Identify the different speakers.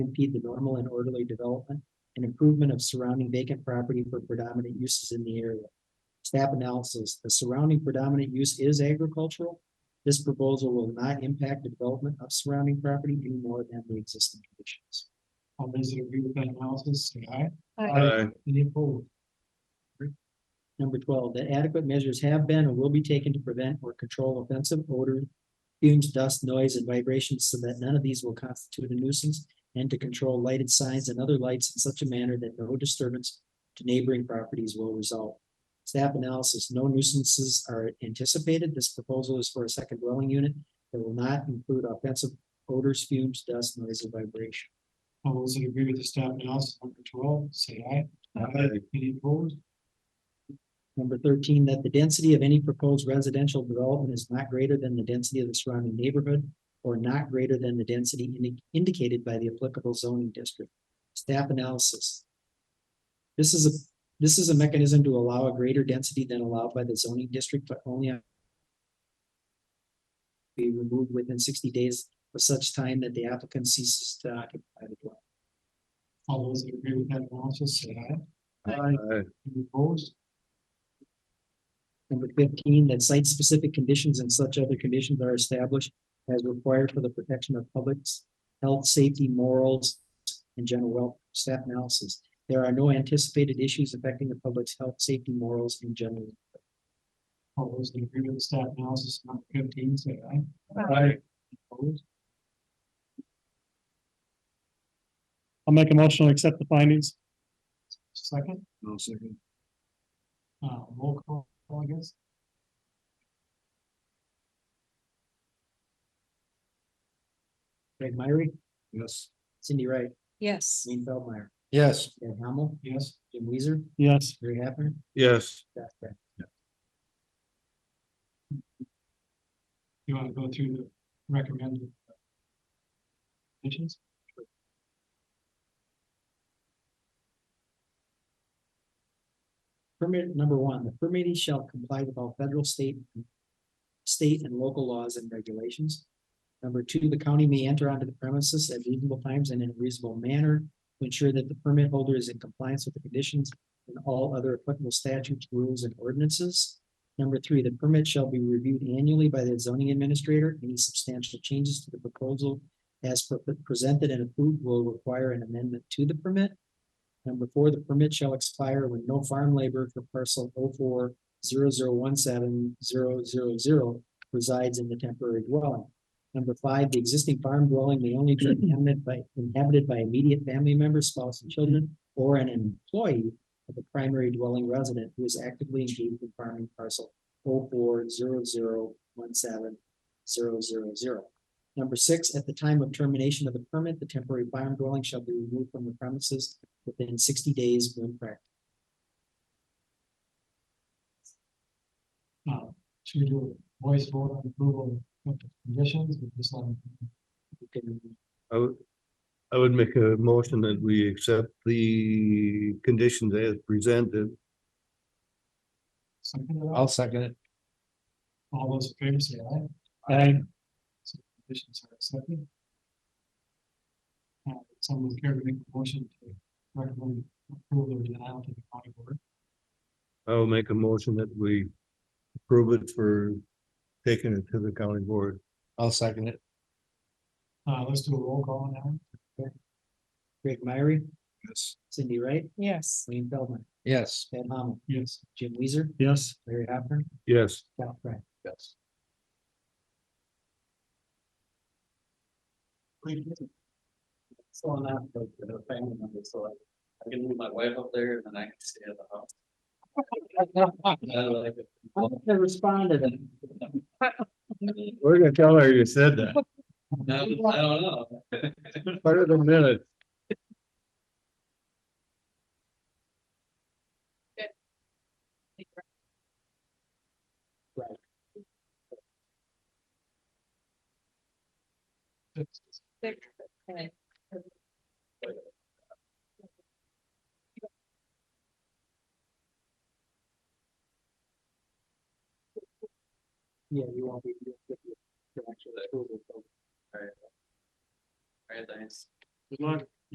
Speaker 1: impede the normal and orderly development and improvement of surrounding vacant property for predominant uses in the area. Staff analysis, the surrounding predominant use is agricultural. This proposal will not impact the development of surrounding property any more than the existing conditions. All those that agree with that analysis, say aye.
Speaker 2: Aye.
Speaker 1: Any opposed? Number twelve, that adequate measures have been and will be taken to prevent or control offensive odor, fumes, dust, noise, and vibrations so that none of these will constitute a nuisance and to control lighted signs and other lights in such a manner that no disturbance to neighboring properties will result. Staff analysis, no nuisances are anticipated. This proposal is for a second dwelling unit that will not include offensive odors, fumes, dust, noise, and vibration. All those that agree with the staff analysis, number twelve, say aye. Any opposed? Number thirteen, that the density of any proposed residential development is not greater than the density of the surrounding neighborhood or not greater than the density indi- indicated by the applicable zoning district. Staff analysis. This is a, this is a mechanism to allow a greater density than allowed by the zoning district, but only on- be removed within sixty days of such time that the applicant ceases to occupy the dwelling. All those that agree with that analysis, say aye. Any opposed? Number fifteen, that site-specific conditions and such other conditions are established as required for the protection of public's health, safety, morals, and general welfare. Staff analysis. There are no anticipated issues affecting the public's health, safety, morals, and general. welfare. All those that agree with the staff analysis, number fifteen, say aye.
Speaker 2: Aye.
Speaker 1: Opposed?
Speaker 3: I'll make a motion to accept the findings.
Speaker 1: Second,
Speaker 2: No second.
Speaker 1: uh, roll call, I guess. Craig Myrie,
Speaker 2: Yes.
Speaker 1: Cindy Wright.
Speaker 4: Yes.
Speaker 1: Wayne Feldmeyer,
Speaker 2: Yes.
Speaker 1: Ed Hamel. Yes. Jim Weezer,
Speaker 3: Yes,
Speaker 1: Gary Hapner.
Speaker 2: Yes.
Speaker 1: You want to go through the recommended uh, conditions? Permit number one, the permittee shall comply with all federal, state, and- state and local laws and regulations. Number two, the county may enter onto the premises at reasonable times and in a reasonable manner to ensure that the permit holder is in compliance with the conditions and all other applicable statutes, rules, and ordinances. Number three, the permit shall be reviewed annually by the zoning administrator. Any substantial changes to the proposal as pre- presented and approved will require an amendment to the permit. Number four, the permit shall expire when no farm labor for parcel 04 four zero zero one seven zero zero zero resides in the temporary dwelling. Number five, the existing farm dwelling may only be inhabited by, inhabited by immediate family members, spouse, and children, or an employee of the primary dwelling resident who is actively engaged in farming parcel oh four zero zero one seven zero zero zero. Number six, at the time of termination of the permit, the temporary farm dwelling shall be removed from the premises within sixty days when practical. should we do a voice vote on approval of the conditions with this one?
Speaker 2: I would, I would make a motion that we accept the conditions as presented.
Speaker 1: I'll second it. All those in favor say aye.
Speaker 3: I,
Speaker 1: So the conditions are accepted. Uh, someone care to make a motion to recommend approval or denial to the county board?
Speaker 2: I will make a motion that we approve it for taking it to the county board. I'll second it.
Speaker 1: Uh, let's do a roll call on that one. Greg Myrie,
Speaker 2: Yes.
Speaker 1: Cindy Wright,
Speaker 4: Yes.
Speaker 1: Wayne Feldman,
Speaker 2: Yes.
Speaker 1: Ed Hamel. Yes. Jim Weezer,
Speaker 3: yes,
Speaker 1: Larry Hopper,
Speaker 2: Yes.
Speaker 1: Cal Friend.
Speaker 2: Yes.
Speaker 5: So I'm not like the family member, so I, I can move my wife up there and then I can stay at the house. I like it.
Speaker 1: I responded and.
Speaker 2: We're gonna tell her you said that.
Speaker 5: I don't I don't know.
Speaker 2: Part of the minute.
Speaker 1: Yeah, you won't be. you'll get your- your actual approval, so
Speaker 5: Very nice.
Speaker 3: Good luck.